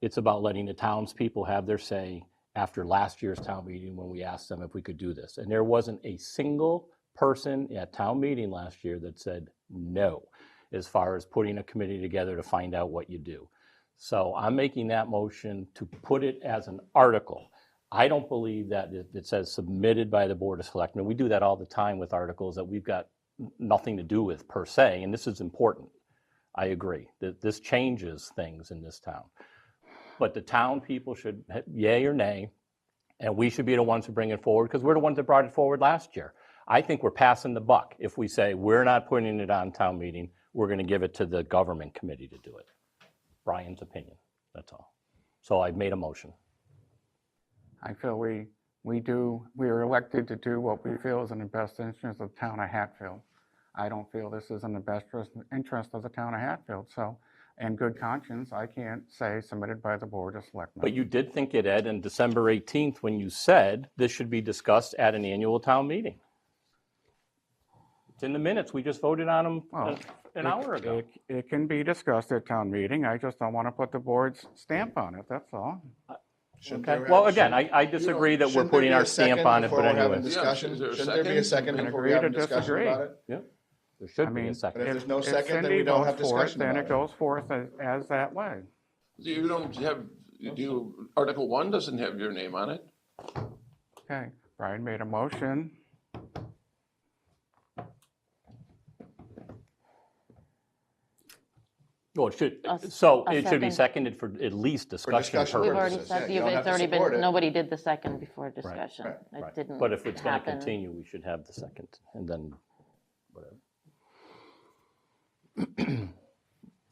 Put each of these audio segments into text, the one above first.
It's about letting the townspeople have their say after last year's town meeting when we asked them if we could do this. And there wasn't a single person at town meeting last year that said no, as far as putting a committee together to find out what you do. So I'm making that motion to put it as an article. I don't believe that it it says submitted by the Board of Selectmen. We do that all the time with articles that we've got n- nothing to do with per se, and this is important. I agree that this changes things in this town. But the town people should ha- yay or nay, and we should be the ones who bring it forward because we're the ones that brought it forward last year. I think we're passing the buck if we say we're not putting it on town meeting, we're going to give it to the government committee to do it. Brian's opinion, that's all. So I've made a motion. I feel we, we do, we are elected to do what we feel is in the best interest of the town of Hatfield. I don't feel this is in the best interest- interest of the town of Hatfield, so in good conscience, I can't say submitted by the Board of But Selectmen. you did think it, Ed, in December 18th, when you said this should be discussed at an annual town meeting. It's in the minutes, we just voted on them uh, Well, an hour ago. It it can be discussed at town meeting, I just don't want to put the board's stamp on it, that's all. Shouldn't Okay, there well, have- again, I, I disagree that we're shouldn't there putting be a our stamp second on it, before but we're having anyway. discussion? is there a Shouldn't there be a second? second Can before agree we have a to discussion disagree. about it? There I should be mean, a But if second. it- there's no if second, then we Cindy don't votes have for it, discussion Then about it it. goes forth as, as that way. You don't have, you do, Article One doesn't have your name on it. Okay, Brian made a motion. Well, it A should, s- so a it should be second. seconded for at least discussion discussion We've purposes. already purposes, yeah, said, you the- don't it's have to already support it. been, nobody did the second before discussion. Right. It didn't But if it's going to happen. continue, we should have the second, and then whatever.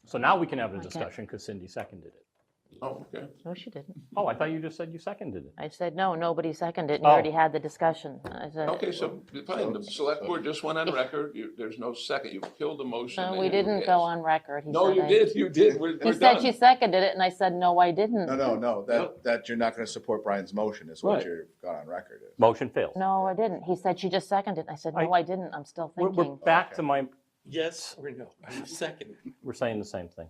So now we can have a discussion because Cindy seconded it. Oh, okay. No, she didn't. Oh, I thought you just said you seconded it. I said, no, nobody Oh. seconded, and you already had the discussion. I said, Okay, so fine, the select board just went on record. You- There's no second. You killed the motion. no, that we you didn't go passed. on record. He No, said you I- did, you did. We're, He we're said done. she seconded it, and I said, no, I didn't. No, no, no, that, Nope. that you're not gonna support Brian's motion is what Right. you're got on record is. Motion fails. No, I didn't. He said, she just seconded. it." I said, no, I- I didn't. I'm still We're, we're thinking. back to my, Yes or no? Second we're saying the same thing.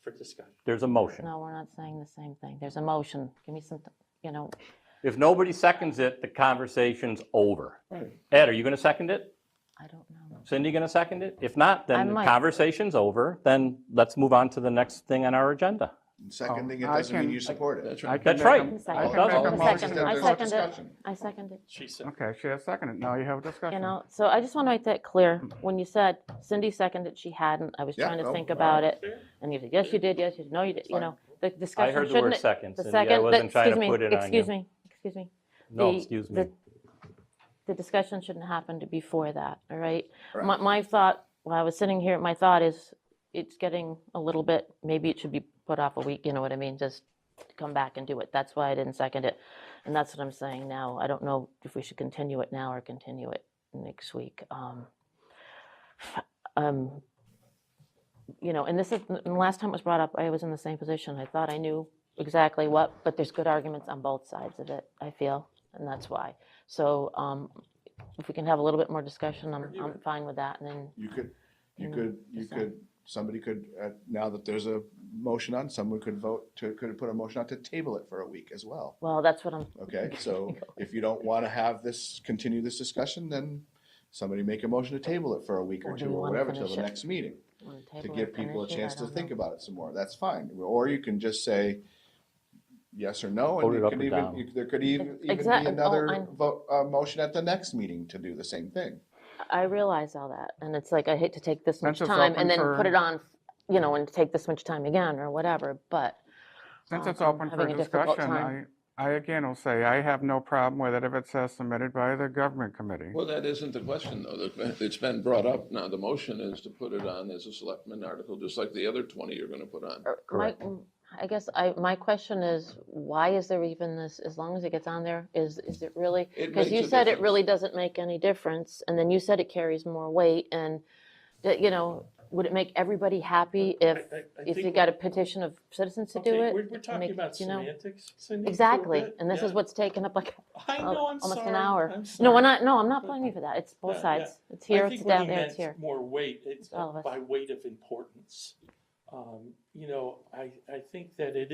for discussion. There's a motion. No, we're not saying the same thing. There's a motion. Give me some, t- you know, If nobody seconds it, the conversation's over. Ed, are you going to second it? I don't know. Cindy going to second it? If not, I then the might. conversation's over. Then let's move on to the next thing on our agenda. Seconding it I doesn't mean can- you support it. That's right. can That's make a- right. I Second. It doesn't. Second. can make a motion. Second, I There's no seconded it. discussion. I seconded. She said, Okay, she has seconded, now you have a discussion. You know, so I just want to make that clear. When you said Cindy seconded, she hadn't, I was Yeah, trying to no, think all about it. And you said, yes, you did, yes, you did, no, you did, you know, the I discussion heard shouldn't. the word it- second, the Cindy. I second- wasn't that- trying excuse to me, put it on Excuse you. me, excuse me. No, The- excuse the- me. The discussion shouldn't happen to before that, all right? Correct. My, my thought, while I was sitting here, my thought is, it's getting a little bit, maybe it should be put off a week, you know what I mean? Just come back and do it. That's why I didn't second it. And that's what I'm saying now. I don't know if we should continue it now or continue it next week. Um, um, you know, and this is, and the last time it was brought up, I was in the same position. I thought I knew exactly what, but there's good arguments on both sides of it, I feel, and that's why. So, um, if we can have a little bit more discussion, I'm, I'm fine with that, and then, You could, you Mm, could, you so- could, somebody could, uh, now that there's a motion on, someone could vote to, could put a motion out to table it for a week as well. well, that's what I'm, Okay, so if you don't want to have this, continue this discussion, then somebody make a motion to table it for a week or Or do two we or wanna whatever till finish the it? next meeting. gonna To table give it, people a finish it, I chance to don't think know. about it some more, that's fine. Or you can just say yes or no. Vote and it you up could or even- down. you- There could e-, even, even be exact- oh, another I'm- vote, uh, motion at the next meeting to do the same thing. I realize all that, and it's like, I hate to take this much Since it's time open and then for- put it on, you know, and take this much time again, or whatever, but. Since um, it's I'm open for having a difficult discussion, I, time. I again will say, I have no problem with it if it says submitted by the government committee. Well, that isn't the question, though. The- It's been brought up. Now, the motion is to put it on as a selectman article, just like the other twenty you're gonna put on. Or My, mm, I guess I, my question is, why is there even this, as long as it gets on there, is, is it really? It makes Because you a said it difference. really doesn't make any difference, and then you said it carries more weight, and, that, you know, would it make everybody happy if, I- I if you think- got a petition of citizens to okay, do it? we're, we're to talking make- about you know? semantics, Cindy. for a Exactly, bit? and this is Yeah. what's taken up like I a- know, I'm sorry. almost an hour. I'm No, we're sorry. not, no, I'm not blaming you for that, it's both Yeah, yeah. sides, it's here, I it's think what he down there, it's meant here. More weight, it's All of us. by weight of importance. Um, You know, I, I think that it